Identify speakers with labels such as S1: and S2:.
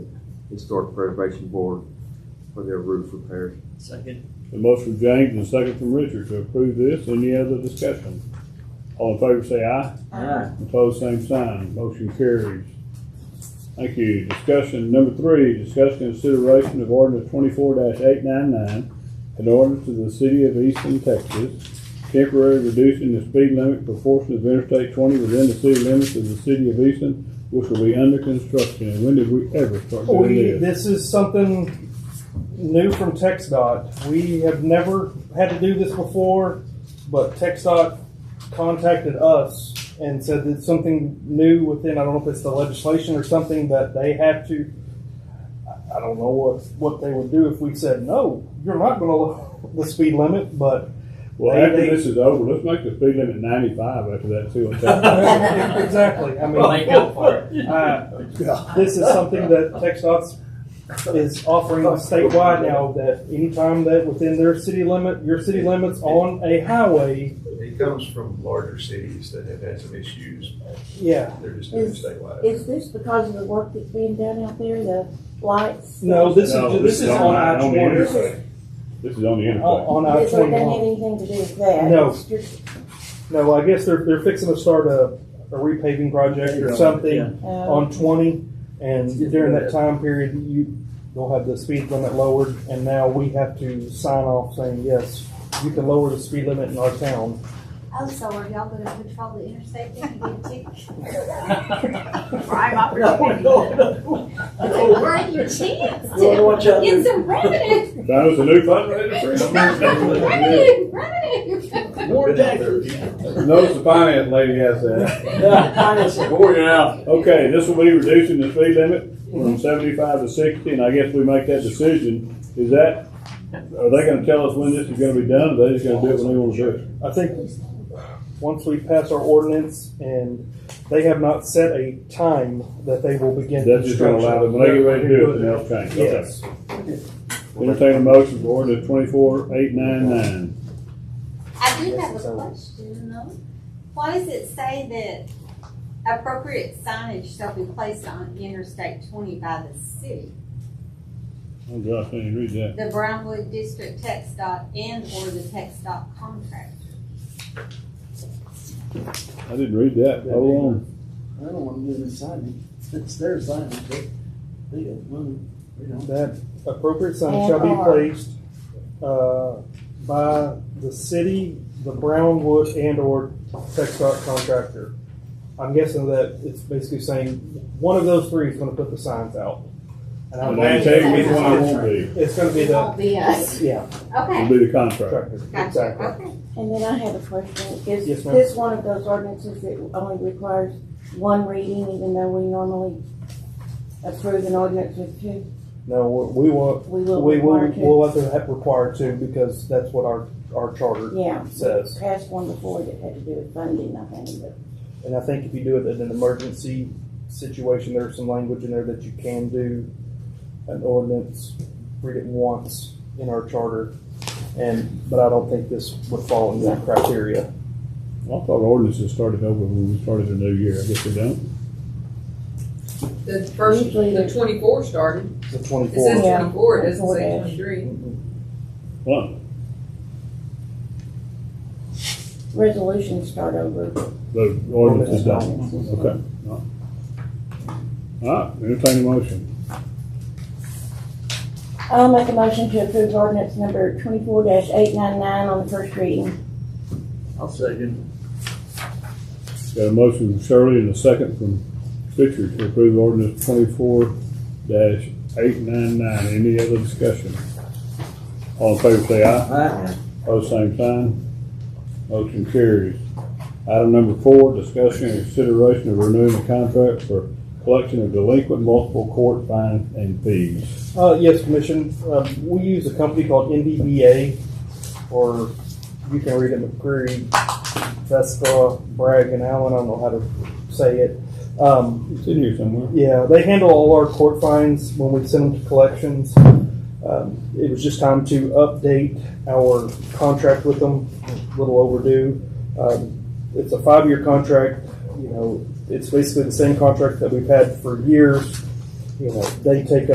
S1: Historic Preservation Board for their roof repairs.
S2: Second.
S3: A motion from James and a second from Richard to approve this. Any other discussion? All in favor say aye.
S2: Aye.
S3: Opposed, same sign. Motion carries. Thank you. Discussion number three, discuss consideration of ordinance twenty-four eight nine nine, an ordinance to the city of Easton, Texas, temporarily reducing the speed limit for portion of Interstate twenty within the city limits of the city of Easton, which will be under construction. And when did we ever start doing
S4: Oh, We,
S3: this?
S4: this is something new from TxDOT. We have never had to do this before, but TxDOT contacted us and said it's something new within, I don't know if it's the legislation or something that they have to, I- I don't know what, what they would do if we said, no, you're not gonna lower the speed limit, but
S3: Well,
S4: They-
S3: after
S4: they-
S3: this is over, let's make the speed limit ninety-five after that, see what happens.
S4: exactly, I mean.
S2: Well, they go for it.
S4: Uh, This is something that TxDOT's is offering statewide now, that anytime that within their city limit, your city limits on a highway,
S5: It comes from larger cities that have had some issues.
S4: yeah.
S5: They're just doing
S6: Is-
S5: statewide.
S6: Is this because of the work that's being done out there, the lights?
S4: No, this
S3: No,
S4: is, this is on I
S3: on the
S4: twenty.
S3: interstate. This is on the interstate.
S4: On I
S6: It doesn't have
S4: twenty-one.
S6: anything to do with that.
S4: No.
S6: It's just,
S4: No, I guess they're, they're fixing to start a, a repaving project or something
S6: uh,
S4: on twenty. And during that time period, you, they'll have the speed limit lowered, and now we have to sign off saying, yes, you can lower the speed limit in our town.
S7: Oh, so are y'all gonna control the interstate then and get tickets?
S8: Prime opportunity.
S7: Where your chance to
S2: watch out.
S7: get some revenue,
S3: That was a new fundraiser for him.
S7: revenue, revenue.
S2: More
S5: Been out there.
S2: taxes.
S3: Notice the finance lady has that.
S2: Finance is boring out.
S3: Okay, this will be reducing the speed limit from seventy-five to sixty, and I guess we make that decision. Is that, are they gonna tell us when this is gonna be done, or they just gonna do it when they wanna do it?
S4: I think once we pass our ordinance and they have not set a time that they will begin.
S3: That's just gonna allow them, when they get ready to do it, then they'll change. Okay.
S4: Yes.
S3: Entertain a motion for ordinance twenty-four eight nine nine.
S7: I do have a question though. Why does it say that appropriate signage shall be placed on Interstate twenty by the city?
S3: Oh gosh, I didn't read that.
S7: The Brownwood District Text dot and or the Text dot contract?
S3: I didn't read that. Hold on.
S2: I don't want to do this signing. It's their signing, but they got money. We don't.
S4: That appropriate sign shall be
S6: And are.
S4: placed, uh, by the city, the Brownwood and or TechDOT contractor. I'm guessing that it's basically saying one of those three is gonna put the signs out. And I'm
S3: And I tell you which one I won't be.
S4: It's gonna be
S7: It
S4: the,
S7: won't be us.
S4: yeah,
S7: Okay,
S3: It'll be the contract.
S4: contractor,
S7: gotcha,
S4: exactly.
S7: okay.
S6: And then I have a question. Is
S4: Yes, ma'am.
S6: this one of those ordinances that only requires one reading, even though we normally approve an ordinance with two?
S4: No, we we want,
S6: We will
S4: We will,
S6: require
S4: we'll
S6: two?
S4: have to have required to because that's what our, our charter
S6: Yeah.
S4: says.
S6: Passed one before that had to do with funding, I think, but
S4: And I think if you do it in an emergency situation, there's some language in there that you can do an ordinance, read it once in our charter. And, but I don't think this would fall into that criteria.
S3: I thought ordinances started over when we started the new year. I guess they don't.
S8: The first,
S6: Usually
S8: the
S6: they-
S8: twenty-four started.
S4: The
S8: It says
S4: twenty-four.
S6: Yeah.
S8: twenty-four, it doesn't
S6: Four
S8: say
S6: dash.
S8: twenty-three.
S3: Well,
S6: resolutions start over.
S3: the ordinances don't.
S6: Ordinances.
S3: Okay. All right, entertain a motion.
S6: I'll make a motion to approve ordinance number twenty-four eight nine nine on the first reading.
S2: I'll second.
S3: Got a motion from Shirley and a second from Richard to approve ordinance twenty-four dash eight nine nine. Any other discussion? All in favor say aye.
S2: Aye.
S3: Pose same sign. Motion carries. Item number four, discussion and consideration of renewing the contract for collection of delinquent multiple court fines and fees.
S4: Uh, yes, Commission, um, we use a company called NDBA, or you can read it McCreary, Vespa, Bragg and Allen, I don't know how to say it. Um,
S3: It's in here somewhere.
S4: Yeah, they handle all our court fines when we send them to collections. Um, it was just time to update our contract with them, a little overdue. Um, it's a five-year contract, you know, it's basically the same contract that we've had for years. You know, they take